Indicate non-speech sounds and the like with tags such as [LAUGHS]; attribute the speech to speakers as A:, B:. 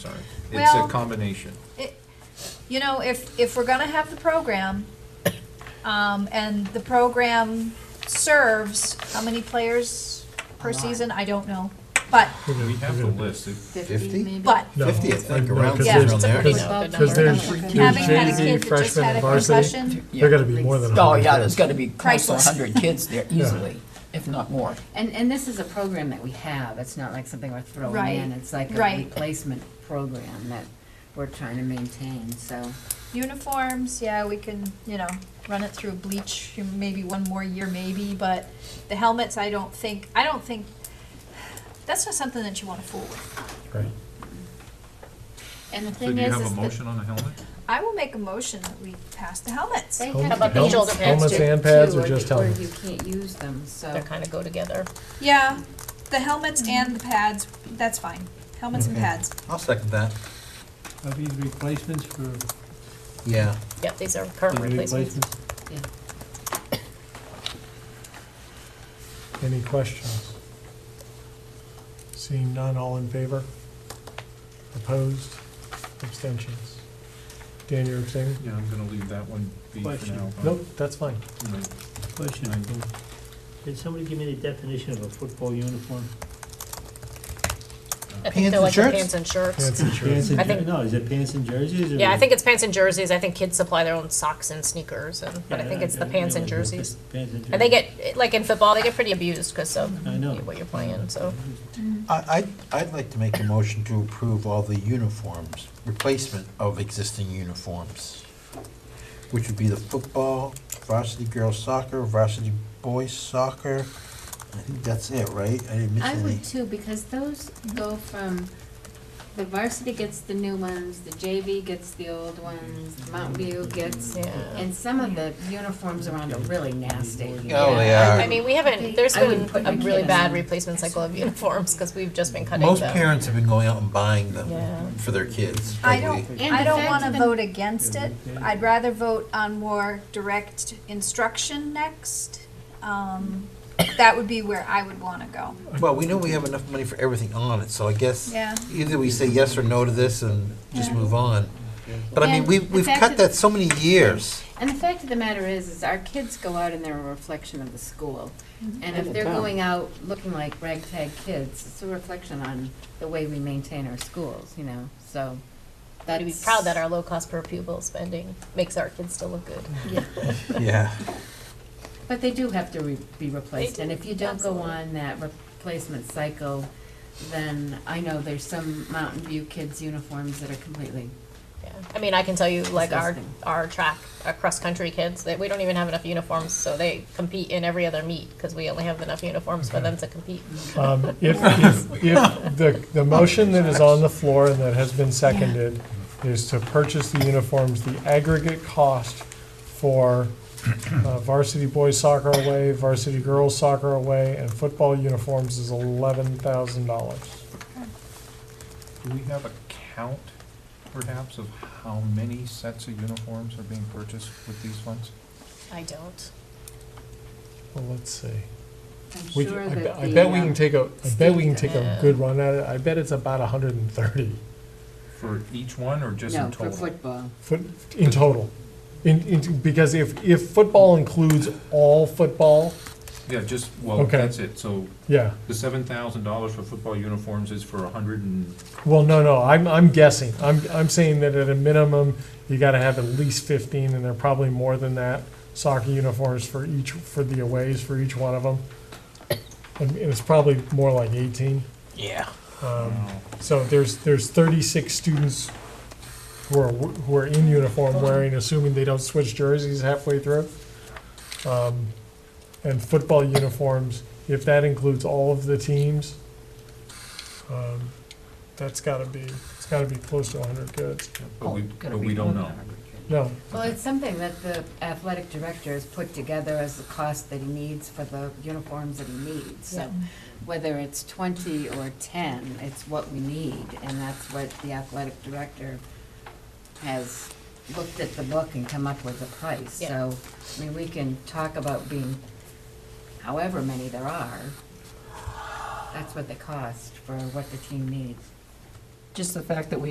A: Sorry. It's a
B: Well-
A: combination.
B: It- You know, if, if we're gonna have the program, um, and the program serves, how many players per season? I don't know, but,
A: We have the list. It-
C: 50 maybe?
B: but
D: No,
C: Fifty, I think,
D: no,
C: around
D: 'cause
B: Yeah,
C: somewhere
D: there's-
C: around
B: it's a
C: there.
B: pretty
E: No,
B: low
E: good
D: Because
B: number.
D: there's,
E: Okay.
D: there's
B: Having had a
D: Jay-Z
B: kid that just
D: freshman
B: had a
D: and varsity,
B: concussion,
D: they're gonna be more than a
F: Oh,
D: hundred
F: yeah,
D: kids.
F: there's gotta be close to
B: Priceless.
F: hundred kids there easily, if not more.
C: And, and this is a program that we have, it's not like something we're throwing
B: Right,
C: in, it's like a
B: right.
C: replacement program that we're trying to maintain, so.
B: uniforms, yeah, we can, you know, run it through bleach, maybe one more year, maybe, but the helmets, I don't think, I don't think, that's not something that you wanna fool with.
D: Right.
C: And the
A: So
C: thing
A: do you
C: is,
A: have a
C: is that
A: motion on the helmet?
B: I will make a motion that we pass the helmets.
C: they
D: How
C: have
D: about the
C: bands
E: shoulder pads
D: Helmets
E: too?
D: and pads
C: too,
D: or just
C: you-
D: helmets?
C: Or you can't use them,
E: They
C: so.
E: kind of go together.
B: Yeah, the helmets
C: Mm-hmm.
B: and the pads, that's fine, helmets and pads.
G: I'll second that.
H: Are these replacements for,
G: Yeah.
E: Yep, these are current
H: these
E: replacements.
H: replacements?
C: yeah.
D: Any questions? Seeing none, all in favor? Opposed? Abstentions? Dan, you're abstaining?
A: Yeah, I'm gonna leave that one be for
H: Question.
A: now.
D: Nope, that's fine.
A: You know,
H: Question,
A: I think-
H: can somebody give me the definition of a football uniform?
E: I think
G: Pants
E: they're
G: and
E: like the
G: shirts?
E: pants and shirts.
D: Nancy, sure.
H: Pants and
E: I think-
H: jer- No, is it pants and jerseys? or-
E: Yeah, I think it's pants and jerseys. I think kids supply their own socks and sneakers, and, but I
H: Yeah,
E: think it's the
H: I
E: pants and
H: know, it's the
E: jerseys.
H: Pants and jerseys.
E: And they get, like in football, they get pretty abused because of
H: I know.
E: what you're playing, so.
G: I, I'd, I'd like to make a motion to approve all the uniforms, replacement of existing uniforms, which would be the football, varsity girls soccer, varsity boys soccer. I think that's it, right? I didn't miss
C: I
G: any.
C: would too, because those go from, the varsity gets the new ones, the JV gets the old ones, Mountain View gets,
E: Yeah.
C: and some of the uniforms around are really nasty.
G: Oh, they
E: I-
G: are.
E: I mean, we haven't, there's
C: I wouldn't
E: been
C: put
E: a
C: my
E: really
C: kid in
E: bad
C: them.
E: replacement cycle of uniforms because we've just been cutting them.
G: Most parents have been going out and buying
E: Yeah.
G: them for their kids.
B: I
G: frankly.
B: don't,
C: And
B: I
C: the
B: don't
C: fact
B: wanna
C: that-
B: vote against it,
H: Yeah.
B: I'd rather vote on more direct instruction next. Um, that would be where I would wanna go.
G: Well, we know we have enough money for everything on it, so I guess
B: Yeah.
G: either we say yes or no to this and just
B: Yeah.
G: move on. But I mean,
C: And
G: we've,
C: the
G: we've
C: fact
G: cut
C: that-
G: that so many years.
C: And the fact of the matter is, is our kids go out and they're a reflection of the school.
E: Mm-hmm.
C: And if they're going out looking like ragtag kids, it's a reflection on the way we maintain our schools, you know, so
E: We'd be
C: that's.
E: proud that our low cost per pupil spending makes our kids still look good.
C: [LAUGHS] Yeah,
G: Yeah.
C: But they do have to re- be replaced, and
E: do,
C: if you don't go
E: absolutely.
C: on that replacement cycle, then I know there's some Mountain View kids' uniforms that are completely,
E: Yeah, I mean, I can tell you, like our
C: Disgusting.
E: our track, our cross country kids, that we don't even have enough uniforms, so they compete in every other meet because we only have enough uniforms for them to compete.
D: Um, If, if, if the, the motion that is on the floor and that has been seconded is to purchase the uniforms, the aggregate cost for uh, varsity boys soccer away, varsity girls soccer away, and football uniforms is eleven thousand dollars.
A: Do we have a count perhaps of how many sets of uniforms are being purchased with these funds?
E: I don't.
D: Well, let's see.
C: I'm
D: We, can-
C: sure
D: I
C: that
D: bet-
C: the.
D: I bet we
C: um,
D: can take a, I bet we can
E: Steve,
D: take a
E: uh,
D: good run at it. I bet it's about hundred and thirty
A: For each one or just in
C: No, for
A: total?
C: football.
D: foot, in total. In, in, because if, if football includes all football,
A: Yeah, just, well,
D: Okay.
A: that's it. So
D: yeah.
A: the seven thousand dollars for football uniforms is for a hundred
D: Um,
A: and,
D: Well, no, no, I'm, I'm guessing. I'm, I'm saying that at a minimum, you gotta have at least fifteen, and they're probably more than that. Soccer uniforms for each, for the aways, for each one of them. And and it's probably more like eighteen.
G: Yeah.
D: Um, So there's, there's thirty-six students who are, who are in uniform wearing, assuming they don't switch jerseys halfway through. Um, And football uniforms, if that includes all of the teams, um, that's gotta be, it's gotta be close to hundred kids.
A: but we,
C: Oh, gotta
A: but
C: be
A: we don't
C: more
A: know.
C: than 100 kids.
D: No,
C: Well, it's something that the athletic director has put together as the cost that he needs for the uniforms that he needs. So whether it's twenty or ten, it's what we need, and that's what the athletic director has looked at the book and come up with a price.
E: Yeah.
C: So, I mean, we can talk about being however many there are. That's what they cost for what the team needs.
F: Just the fact that we